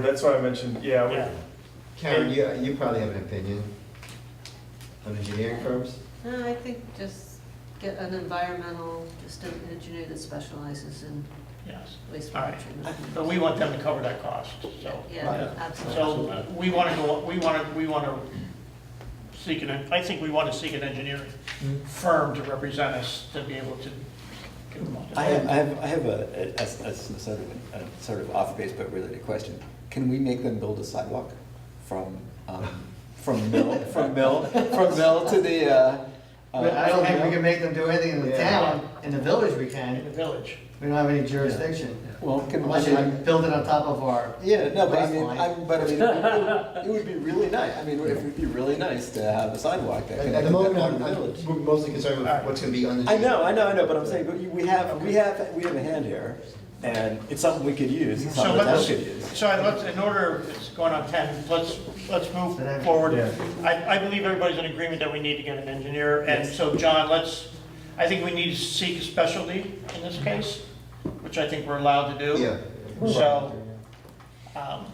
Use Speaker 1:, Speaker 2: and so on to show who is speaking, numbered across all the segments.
Speaker 1: That's why I mentioned, yeah,
Speaker 2: Yeah.
Speaker 1: we-
Speaker 3: Karen, you, you probably have an opinion on engineering firms?
Speaker 4: No, I think just get an environmental, just an engineer that specializes in
Speaker 2: Yes, all
Speaker 4: wastewater
Speaker 2: right.
Speaker 4: treatment.
Speaker 2: But we want them to cover that cost, so.
Speaker 4: Yeah, absolutely.
Speaker 2: So we want to go, we want to, we want to seek an, I think we want to seek an engineering firm to represent us to be able to. give them all.
Speaker 5: I have, I have, I have a, a- a- a sort of, a sort of off-base but related question. Can we make them build a sidewalk from, um, from Mill, from Mill, from Mill to the, uh? uh,
Speaker 6: But I don't
Speaker 5: from
Speaker 6: think we
Speaker 5: Mill?
Speaker 6: can make them do anything in the
Speaker 3: Yeah.
Speaker 6: town, in the village we
Speaker 2: In the
Speaker 6: can,
Speaker 2: village.
Speaker 6: we don't have any jurisdiction.
Speaker 5: Well, can,
Speaker 6: Unless
Speaker 5: I
Speaker 6: you
Speaker 5: mean,
Speaker 6: build it on top of our.
Speaker 5: yeah, no, but I mean,
Speaker 6: baseline.
Speaker 5: I'm, but I mean, it would be really nice, I mean, it would be really nice to have a sidewalk that
Speaker 3: At at the
Speaker 5: connected that
Speaker 3: moment,
Speaker 5: part of
Speaker 3: I'm,
Speaker 5: the village.
Speaker 3: I'm- we're mostly concerned with what's gonna be under.
Speaker 5: I know, I know, I know, but I'm saying, but you- we have, we have, we have a hand here, and it's something we could use, it's
Speaker 2: So
Speaker 5: something the town
Speaker 2: let's,
Speaker 5: could use.
Speaker 2: so I- let's, in order, it's going on 10, let's, let's move forward.
Speaker 1: Yeah.
Speaker 2: I, I believe everybody's in agreement that we need to get an engineer, and so, John, let's, I think we need to seek a specialty in this case, which I think we're allowed to do.
Speaker 3: Yeah.
Speaker 2: So, um,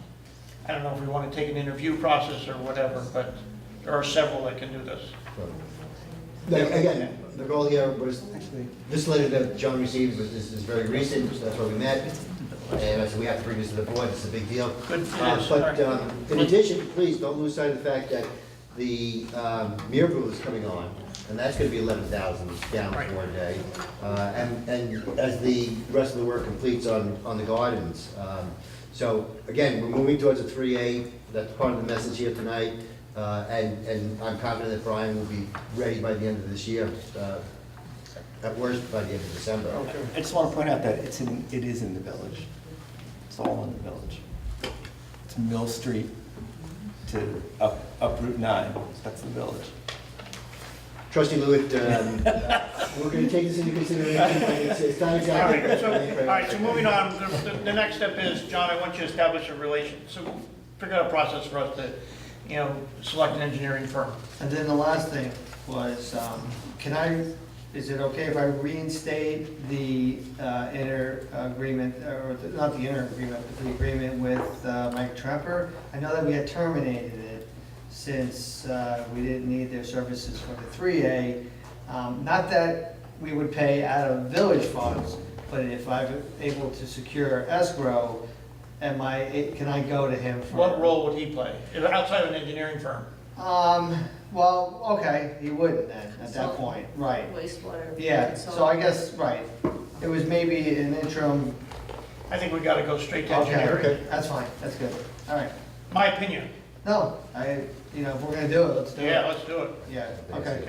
Speaker 2: I don't know if we want to take an interview process or whatever, but there are several that can do this.
Speaker 3: Like, again, the goal here was, this letter that John received was, is, is very recent, so that's why we met. And I said, we have to bring this to the board, it's a big deal.
Speaker 2: Good,
Speaker 3: Uh,
Speaker 2: yes,
Speaker 3: But,
Speaker 2: all right.
Speaker 3: um, in addition, please don't lose sight of the fact that the, um, Miracle is coming on, and that's gonna be eleven thousand down
Speaker 2: Right.
Speaker 3: for one day. Uh, and, and as the rest of the work completes on, on the gardens, um, so, again, we're moving towards a three A, that's part of the message here tonight. Uh, and, and I'm confident that Brian will be ready by the end of this year, uh, at worst, by the end of December.
Speaker 5: I just want to point out that it's in, it is in the village. It's all in the village. It's Mill Street to up, up Route 9, that's the village.
Speaker 3: Trustee Lewitt, um, we're gonna take this into consideration, it's, it's not
Speaker 2: All
Speaker 3: exactly.
Speaker 2: right, so, all right, so moving on, the, the- the next step is, John, I want you to establish a relation, so figure out a process for us to, you know, select an engineering firm.
Speaker 6: And then the last thing was, um, can I, is it okay if I reinstate the uh, inter agreement, or the- not the inter agreement, but the agreement with uh, Mike Tremper? I know that we had terminated it since uh, we didn't need their services for the 3A. Um, Not that we would pay out of village funds, but if I'm able to secure escrow, am I, can I go to him for?
Speaker 2: What role would he play, outside of an engineering firm?
Speaker 6: Um, well, okay, he wouldn't then, at that point, right.
Speaker 4: Wastewater.
Speaker 6: Yeah,
Speaker 4: and
Speaker 6: so I guess, right, it was maybe an interim,
Speaker 2: I think we gotta go straight to
Speaker 6: okay,
Speaker 2: engineering.
Speaker 6: okay, that's fine, that's good, all right.
Speaker 2: My opinion,
Speaker 6: No, I, you know, if we're gonna do it, let's do it.
Speaker 2: yeah, let's do it.
Speaker 6: Yeah, okay.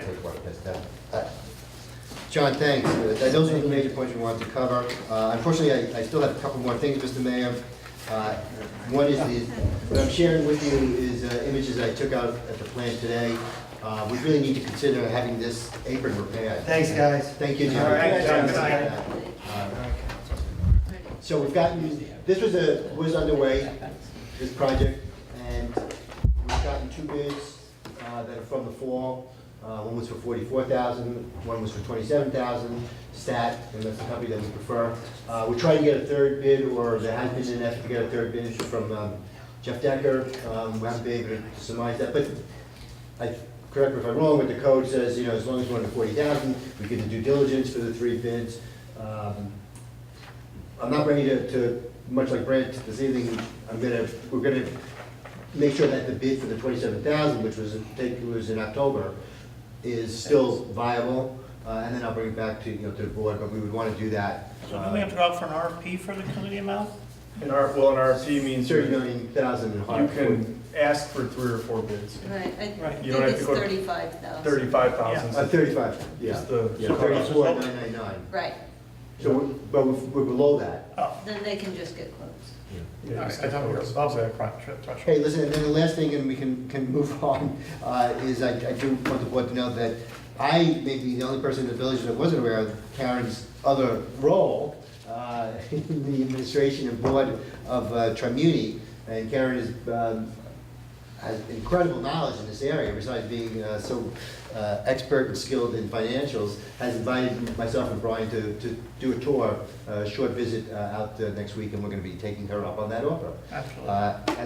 Speaker 3: Uh, John, thanks. Uh, Those are the major points we wanted to cover. Uh, Unfortunately, I- I still have a couple more things, Mr. Mayor. Uh, One is the, what I'm sharing with you is uh, images I took out at the plant today. Uh, We really need to consider having this apron repaired.
Speaker 6: Thanks, guys.
Speaker 3: Thank you, John.
Speaker 6: All right,
Speaker 2: John,
Speaker 6: good night.
Speaker 3: Uh,
Speaker 6: All right.
Speaker 3: So we've gotten, this was a, was underway, this project, and we've gotten two bids uh, that are from the fall. Uh, One was for forty-four thousand, one was for twenty-seven thousand, Stat, and that's the company that we prefer. Uh, We're trying to get a third bid, or there has been an effort to get a third bid from um, Jeff Decker. Um, We haven't been able to surmise that, but I, correct me if I'm wrong, but the code says, you know, as long as we're under forty thousand, we get the due diligence for the three bids. Um, I'm not ready to, to, much like Brent this evening, I'm gonna, we're gonna make sure that the bid for the twenty-seven thousand, which was, I think it was in October, is still viable, uh, and then I'll bring it back to, you know, to the board, but we would wanna do that. uh,
Speaker 2: So do we have to go out for an RFP for the committee amount?
Speaker 1: an R, well, an RFP means
Speaker 3: Thirty
Speaker 1: you
Speaker 3: million thousand in hard.
Speaker 1: can ask for three or four bids.
Speaker 4: Right, I
Speaker 2: Right.
Speaker 1: You
Speaker 4: think
Speaker 1: don't have to
Speaker 4: it's
Speaker 1: go to
Speaker 4: thirty-five thousand.
Speaker 1: Thirty-five thousand.
Speaker 3: Uh, thirty-five, yeah.
Speaker 1: Just the-
Speaker 3: Yeah, thirty-four, nine nine nine.
Speaker 4: Right,
Speaker 3: So, we're- but we're we're below that.
Speaker 2: Oh,
Speaker 4: then they can just get quotes.
Speaker 2: all right, I thought we were above that threshold.
Speaker 3: Hey, listen, and then the last thing, and we can, can move on, uh, is I, I do want the board to know that I may be the only person in the village that wasn't aware of Karen's other role uh, in the administration and board of uh, Trimuni. And Karen is, um, has incredible knowledge in this area, besides being uh, so uh, expert and skilled in financials, has invited myself and Brian to, to do a uh, tour, a short visit uh, out uh, next week, and we're gonna be taking her up on that offer.
Speaker 2: Absolutely.
Speaker 3: Uh,